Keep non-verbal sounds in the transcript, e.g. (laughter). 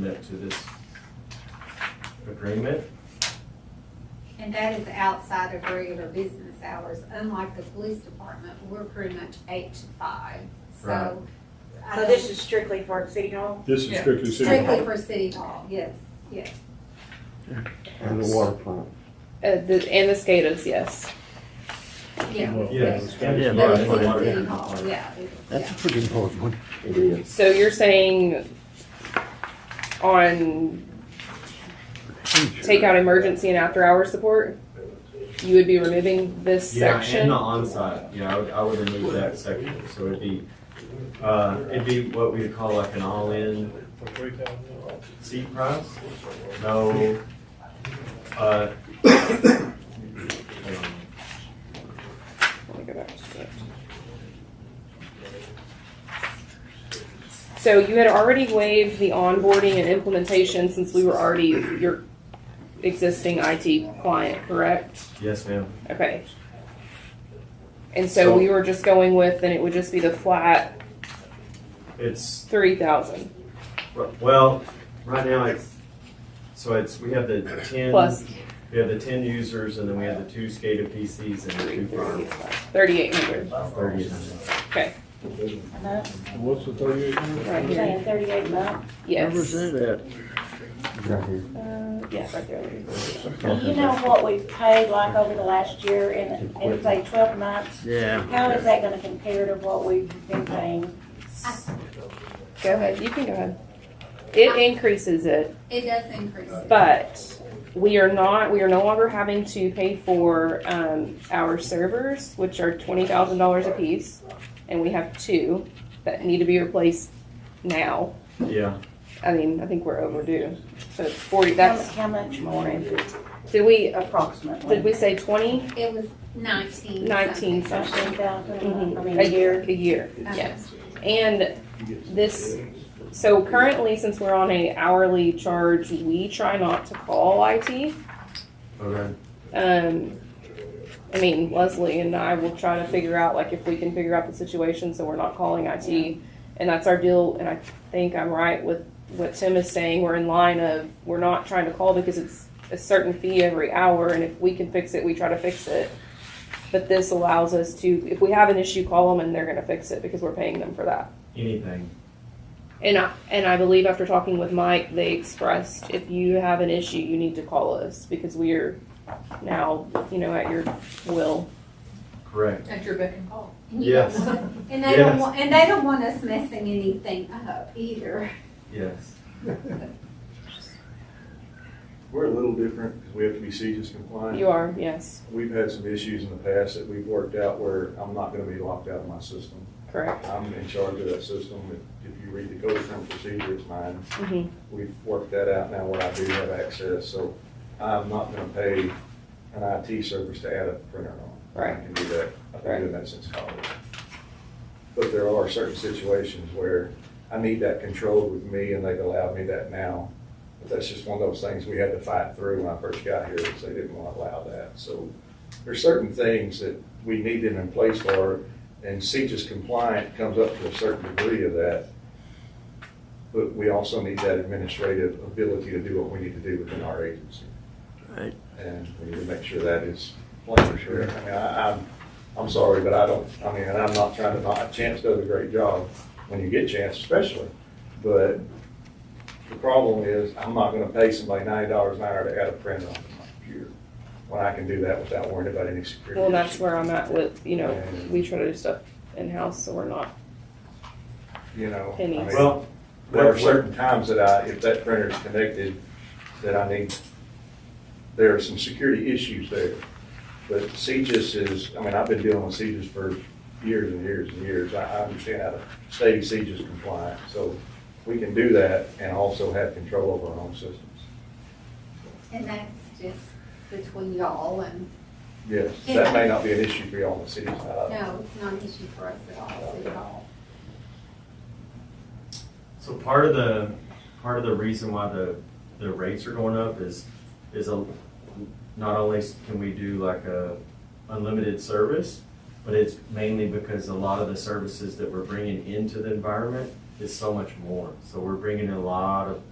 amendment to this agreement. And that is outside of regular business hours, unlike the police department, we're pretty much eight to five, Right. so. I So this is strictly for City Hall? This is Yeah. strictly don't- city Strictly hall. for city hall, yes, yes. And the water plant. Uh, the, and the skaters, yes. Yeah. Well, Yes. Yeah, But it's Yeah, in water city plant. hall, yeah. it- That's a yeah. pretty important one. It is. So you're saying on take out emergency and after hours support, you would be removing this Yeah, section? and the onsite, yeah, I would, I would remove that section, so it'd be, uh, it'd be what we'd call like an all-in seat price, no, uh. (coughs) hang on. Let me go back to it. So you had already waived the onboarding and implementation since we were already your existing IT client, correct? Yes, ma'am. Okay. And So- so we were just going with, and it would just be the flat It's, three thousand well, right now it's, so it's, we have the ten. plus We have the ten users and then we have the two SCADA PCs and the two firms. thirty-eight hundred, Thirty is- Enough? What's the thirty-eight? right You're here, saying thirty-eight month? Where was yes. Uh, that at? Right here. yeah, right there. uh, You know what we've paid like over the last year and and it's like twelve months? Yeah. How is that gonna compare to what we've been paying? Go ahead, you can go ahead. It increases it. It does increase it. But we are not, we are no longer having to pay for um, our servers, which are twenty thousand dollars apiece, and we have two that need to be replaced now. Yeah, I mean, I think we're overdue, so it's forty. How That's how much more is did we did approximately? we say twenty It was nineteen. nineteen something? Fifteen thousand, I Mhm. mean, a year? A year, Okay. yes. And this, so currently, since we're on a hourly charge, we try not to call IT. okay, Um, I mean, Leslie and I will try to figure out, like, if we can figure out the situation, so we're not calling IT. And that's our deal, and I think I'm right with what Tim is saying, we're in line of, we're not trying to call because it's a certain fee every hour, and if we can fix it, we try to fix it. But this allows us to, if we have an issue, call them and they're gonna fix it because we're paying them for that. anything. And I, and I believe after talking with Mike, they expressed if you have an issue, you need to call us because we are now, you know, at your will. Correct. At your beck and call. Yes. And they don't Yes. want, and they don't want us messing anything up either. Yes. We're a little different because we have to be CEGIS compliant. You are, yes, We've had some issues in the past that we've worked out where I'm not going to be locked out of my system. correct. I'm in charge of that system. If if you read the code of criminal procedure, it's mine. hmm We've worked that out now where I do have access, so I'm not going to pay an IT service to add a printer on. Right. I can do that. I've Right. been doing that since college. But there are certain situations where I need that control with me and they've allowed me that now. But that's just one of those things we had to fight through when I first got here because they didn't want to allow that. So there's certain things that we need them in place for and CJIS compliant comes up to a certain degree of that. But we also need that administrative ability to do what we need to do within our agency. Right. And we need to make sure that is plain for sure. I mean, I, I'm, I'm sorry, but I don't, I mean, and I'm not trying to, knock- Chance does a great job when you get Chance especially. But the problem is, I'm not gonna pay somebody ninety dollars an hour to add a print on my computer when I can do that without worrying about any security. Well, and that's issues. where I'm at with, you know, we try to do stuff in-house, so we're not, You know, I pennies. mean, Well, There are certain times that I, if that printer is connected, that I need, there are some security issues there. But CGIS is, I mean, I've been dealing with CGIS for years and years and years. I, I understand how to stay CGIS compliant. So we can do that and also have control over our own systems. And that's just between y'all and, Yes, that may not be an issue for y'all on the city side. no, it's not an issue for us at all, city hall. So part of the, part of the reason why the, the rates are going up is, is a, not only can we do like a unlimited service, but it's mainly because a lot of the services that we're bringing into the environment is so much more. So we're bringing in a lot of